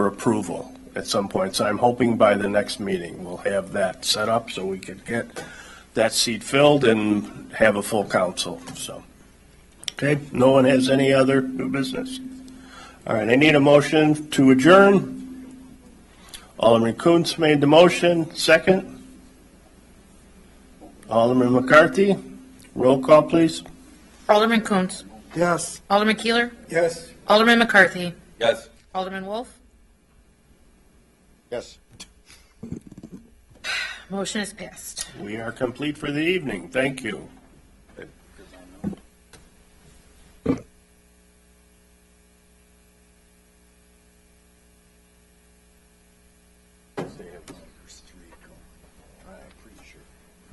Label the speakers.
Speaker 1: for approval at some point. So I'm hoping by the next meeting, we'll have that set up so we can get that seat filled and have a full council, so. Okay, no one has any other new business? All right, I need a motion to adjourn. Alderman Koontz made the motion, second. Alderman McCarthy, roll call, please.
Speaker 2: Alderman Coontz.
Speaker 3: Yes.
Speaker 2: Alderman Keeler.
Speaker 3: Yes.
Speaker 2: Alderman McCarthy.
Speaker 4: Yes.
Speaker 2: Alderman Wolf.
Speaker 3: Yes.
Speaker 2: Motion is passed.
Speaker 1: We are complete for the evening, thank you.